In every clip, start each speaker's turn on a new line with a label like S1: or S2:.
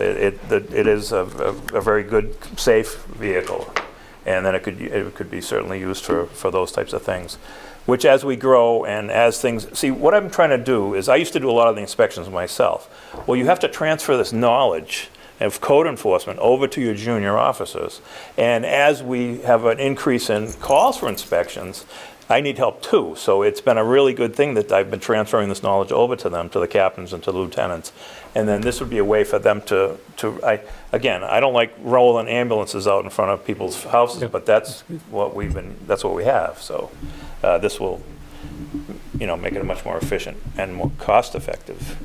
S1: It, it- that it is a, a a very good, safe vehicle. And then it could, it could be certainly used for, for those types of things. Which as we grow and as things, see, what I'm trying to do is, I used to do a lot of the inspections myself. Well, you have to transfer this knowledge of code enforcement over to your junior officers. And as we have an increase in calls for inspections, I need help too. So it's been a really good thing that I've been transferring this knowledge over to them, to the captains and to the lieutenants. And then this would be a way for them to, to, I, again, I don't like rolling ambulances out in front of people's houses, but that's what we've been, that's what we have. So uh, this will, you know, make it much more efficient and more cost-effective.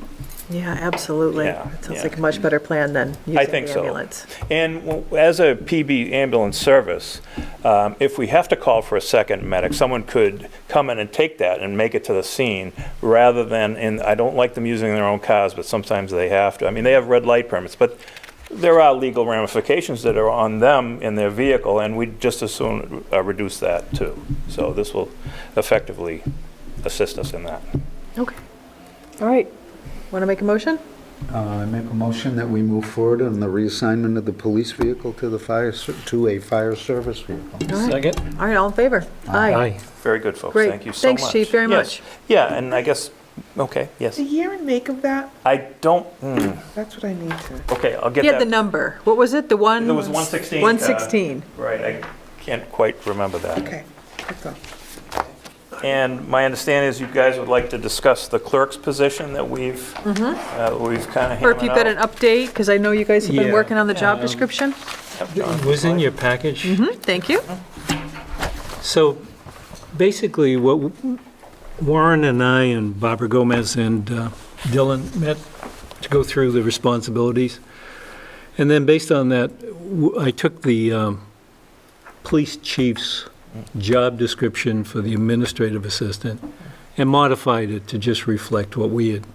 S2: Yeah, absolutely.
S1: Yeah,
S2: It sounds
S1: yeah.
S2: like a much better plan than using the
S1: I
S2: ambulance.
S1: think so. And w- as a PB ambulance service, um, if we have to call for a second medic, someone could come in and take that and make it to the scene rather than, and I don't like them using their own cars, but sometimes they have to. I mean, they have red light permits, but there are legal ramifications that are on them in their vehicle, and we just as soon uh, reduce that too. So this will effectively assist us in that.
S2: Okay. All right. Want to make a motion?
S3: Uh, I make a motion that we move forward on the reassignment of the police vehicle to the fire, ser- to a fire service vehicle.
S2: All right.
S4: Second?
S2: All right, all in favor? Aye.
S1: Very good, folks.
S2: Great.
S1: Thank you so much.
S2: Thanks, Chief, very
S1: Yes.
S2: much.
S1: Yeah, and I guess, okay, yes.
S5: The year and make of that,
S1: I don't, hmm.
S5: that's what I need to.
S1: Okay, I'll get
S2: He had the
S1: that.
S2: number. What was it? The one?
S1: It was 116. uh,
S2: 116.
S1: Right, I can't quite remember that.
S5: Okay, that's all.
S1: And my understanding is you guys would like to discuss the clerk's position that we've, uh, we've kind of
S2: Mm-hmm. Or if you've got an
S1: hammered out.
S2: update, because I know you guys have been
S4: Yeah.
S2: working on the job
S4: Um,
S2: description.
S4: It was in your package.
S2: Hmm, Thank you.
S4: So basically, what Warren and I and Barbara Gomez and uh, Dylan met to go through the responsibilities. And then based on that, w- I took the um, police chief's job description for the administrative assistant and modified it to just reflect what we had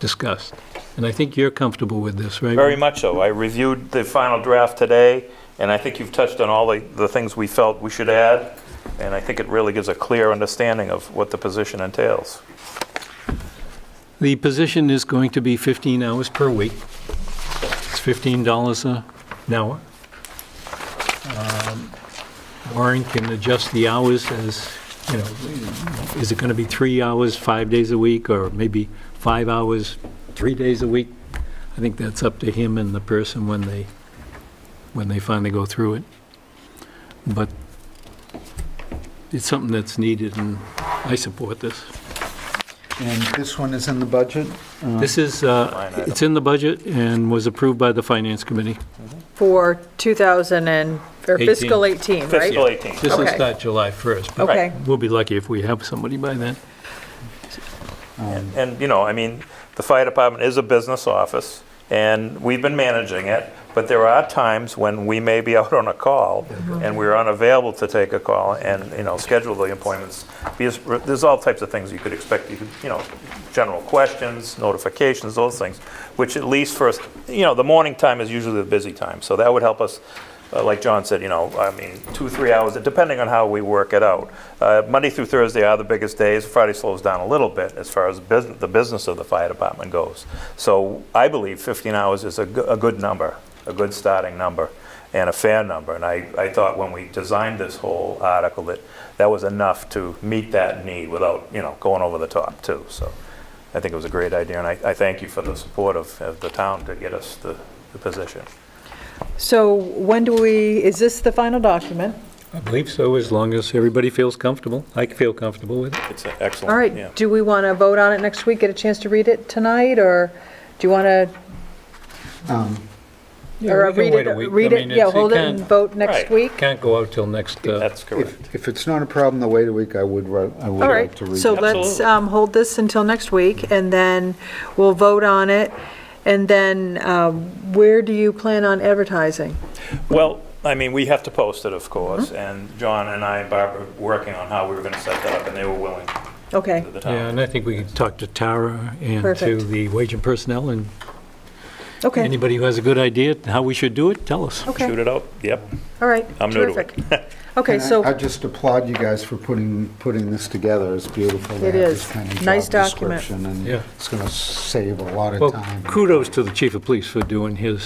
S4: discussed. And I think you're comfortable with this, right?
S1: Very much so. I reviewed the final draft today, and I think you've touched on all the, the things we felt we should add, and I think it really gives a clear understanding of what the position entails.
S4: The position is going to be 15 hours per week. It's $15 a- an hour. Um, Warren can adjust the hours as, you know, is it going to be three hours, five days a week, or maybe five hours, three days a week? I think that's up to him and the person when they, when they finally go through it. But it's something that's needed, and I support this.
S3: And this one is in the budget? Uh,
S4: This is,
S1: Line
S4: uh,
S1: item.
S4: it's in the budget and was approved by the Finance Committee.
S2: For 2000 and, or fiscal 18, right?
S1: Fiscal 18.
S4: This will
S2: Okay.
S4: start July 1st, but
S2: Okay.
S4: we'll be lucky if we have somebody by then.
S1: And, you know, I mean, the fire department is a business office, and we've been managing it, but there are times when we may be out on a call, and we're unavailable to take a call and, you know, schedule the appointments. Because there's all types of things you could expect, you could, you know, general questions, notifications, those things, which at least for, us, you know, the morning time is usually the busy time, so that would help us uh, like John said, you know, I mean, two, three hours, depending on how we work it out. Uh, Monday through Thursday are the biggest days. Friday slows down a little bit as far as business, the business of the fire department goes. So I believe 15 hours is a, go- a good number, a good starting number, and a fair number. And I, I thought when we designed this whole article that that was enough to meet that need without, you know, going over the top too. So I think it was a great idea, and I, I thank you for the support of, of the town to get us the, the position.
S2: So when do we, is this the final document?
S4: I believe so, as long as everybody feels comfortable. I feel comfortable with it.
S1: It's excellent.
S2: All
S1: yeah.
S2: right, do we want to vote on it next week, get a chance to read it tonight, or do you want to,
S3: um,
S2: or uh, read it? Read it, yeah, hold it and vote next
S1: Right.
S2: week?
S4: Can't go out till next, uh,
S1: That's correct.
S3: If if it's not a problem to wait a week, I would, ri- I would
S2: All
S3: like
S2: right,
S3: to read
S2: so
S3: it.
S2: let's
S1: Absolutely.
S2: um, hold this until next week, and then we'll vote on it. And then um, where do you plan on advertising?
S1: Well, I mean, we have to post it, of course, and John and I and Barbara were working on how we were going to set that up, and they were willing
S2: Okay,
S1: at the
S4: yeah,
S1: time.
S4: and I think we can talk to Tara and to
S2: Perfect.
S4: the wage and personnel, and
S2: okay,
S4: anybody who has a good idea how we should do it, tell us.
S1: Shoot
S2: okay,
S1: it out, yep.
S2: all right.
S1: I'm new to it.
S2: Terrific. Okay,
S3: And I-
S2: so
S3: I just applaud you guys for putting, putting this together. It's beautiful. to
S2: It
S3: have this
S2: is.
S3: kind of
S2: Nice
S3: job
S2: document.
S3: description, And
S4: Yeah.
S3: it's going to save a lot of
S4: Well,
S3: time.
S4: kudos to the chief of police for doing his